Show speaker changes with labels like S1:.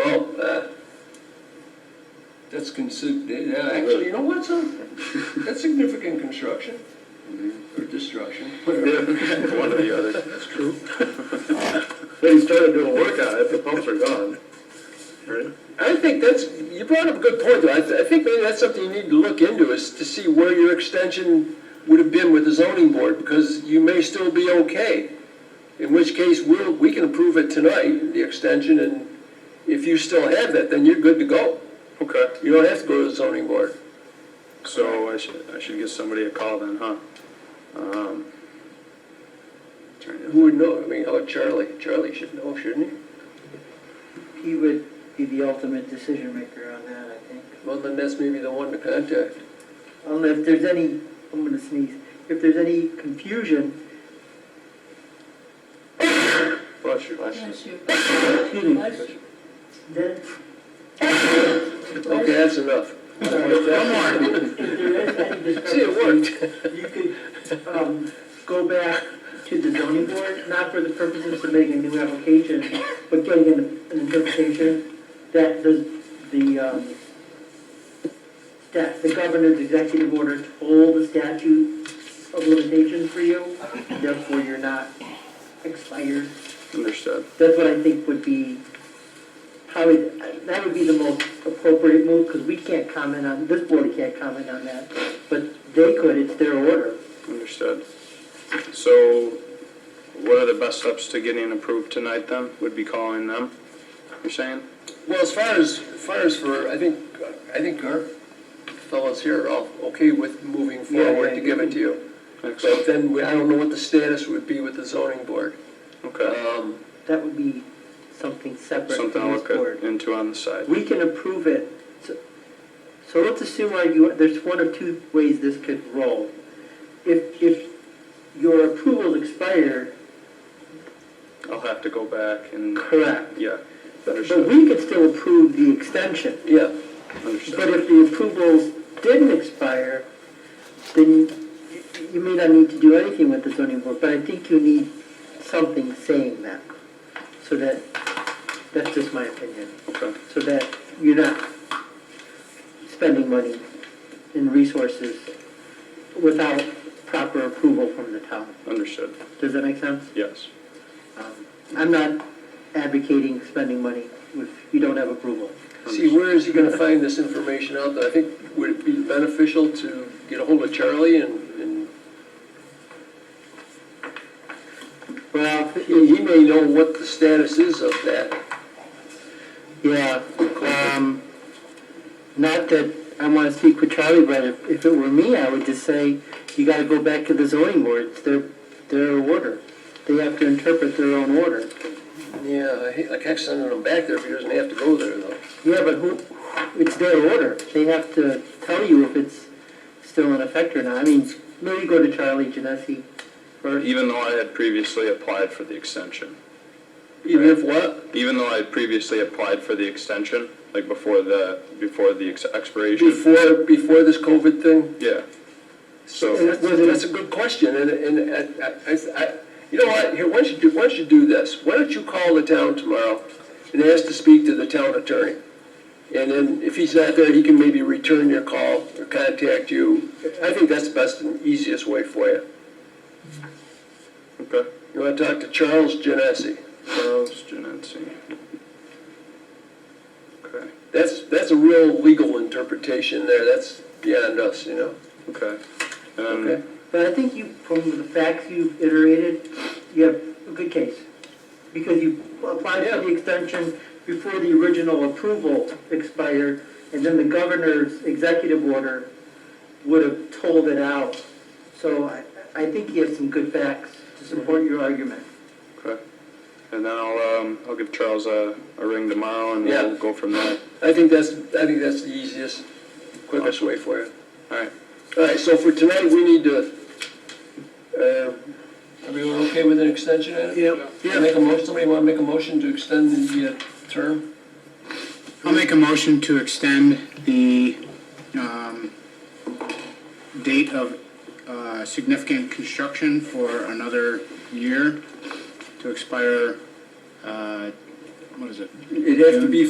S1: uh, That's considered, actually, you know what, son? That's significant construction or destruction.
S2: One or the other. That's true. But he started doing work on it, the pumps are gone. Right?
S1: I think that's, you brought up a good point, though. I, th- I think maybe that's something you need to look into, is to see where your extension would have been with the zoning board, because you may still be okay. In which case, we'll, we can approve it tonight, the extension, and if you still have that, then you're good to go.
S2: Okay,
S1: You don't have to go to the zoning board.
S2: so I should, I should give somebody a call then, huh? Um, trying to-
S1: Who would know? I mean, oh, Charlie, Charlie should know, shouldn't he?
S3: He would be the ultimate decision maker on that, I think.
S1: Well, then that's maybe the one to contact.
S3: Unless there's any, I'm gonna sneeze, if there's any confusion,
S2: Bless you.
S4: Bless you.
S3: Bless then
S1: Okay, that's enough.
S3: if there is any
S1: See, it
S3: discrepancy,
S1: worked.
S3: you could, um, go back to the zoning board, not for the purpose of submitting a new application, but getting an, an interpretation that the, the, um, that the governor's executive order told the statute of limitations for you, therefore you're not expired.
S2: Understood.
S3: That's what I think would be probably, that would be the most appropriate move, because we can't comment on, this board can't comment on that, but they could, it's their order.
S2: Understood. So what are the best steps to getting approved tonight then? Would be calling them, you're saying?
S1: Well, as far as, as far as for, I think, I think our fellows here are all okay with moving
S3: Yeah, yeah,
S1: forward to
S3: you
S1: give it to you. But
S2: Excellent.
S1: then, we- I don't know what the status would be with the zoning board.
S2: Okay.
S1: Um,
S3: That would be something separate from
S2: Something I'll
S3: this
S2: look at-
S3: board.
S2: into on the side.
S3: We can approve it, so so let's assume like, you, there's one of two ways this could roll. If, if your approval expired,
S2: I'll have to go back and,
S3: correct,
S2: yeah,
S3: but but
S2: understood,
S3: we could still approve the extension.
S1: yeah,
S3: But
S2: understood.
S3: if the approvals didn't expire, then you- you may not need to do anything with the zoning board, but I think you need something saying that. So that, that's just my opinion,
S2: Okay,
S3: so that you're not spending money and resources without proper approval from the town.
S2: understood,
S3: Does that make sense?
S2: yes.
S3: Um, I'm not advocating spending money if you don't have approval.
S1: see, where is he gonna find this information out, though? I think, would it be beneficial to get a hold of Charlie and, and
S3: Well,
S1: he he may know what the status is of that.
S3: Yeah, um, not that I wanna speak with Charlie, but if, if it were me, I would just say, you gotta go back to the zoning board, it's their, their order. They have to interpret their own order.
S1: Yeah, I hate, I kept sending him back there if he doesn't have to go there, though.
S3: Yeah, but who, it's their order, they have to tell you if it's still in effect or not, I mean, maybe go to Charlie Genesi first.
S2: Even though I had previously applied for the extension,
S1: Even if what?
S2: even though I had previously applied for the extension, like before the, before the ex- expiration,
S1: Before, before this COVID thing?
S2: yeah. So,
S1: That's that's a good question, and, and, and I- I, I, you know what, here, why don't you do, why don't you do this? Why don't you call the town tomorrow and ask to speak to the town attorney? And then, if he's not there, he can maybe return your call or contact you. I think that's the best and easiest way for you.
S2: okay.
S1: You wanna talk to Charles Genesi?
S2: Charles Genetzi. Okay,
S1: That's, that's a real legal interpretation there, that's beyond us, you know?
S2: okay.
S1: Okay.
S2: And
S3: But I think you, from the facts you've iterated, you have a good case. Because you applied for the
S1: Yeah.
S3: extension before the original approval expired, and then the governor's executive order would have told it out. So I, I think you have some good facts to support your argument.
S2: Okay. And then I'll, um, I'll give Charles a, a ring tomorrow and
S1: Yeah.
S2: we'll go from there.
S1: I think that's, I think that's the easiest, quickest way for you.
S2: All right.
S1: All right, so for tonight, we need to, uh, everyone okay with an extension? Yep. Make a motion, somebody want to make a motion to extend the uh, term?
S5: I'll make a motion to extend the um, date of uh, significant construction for another year to expire, uh, what is it?
S1: It'd have to be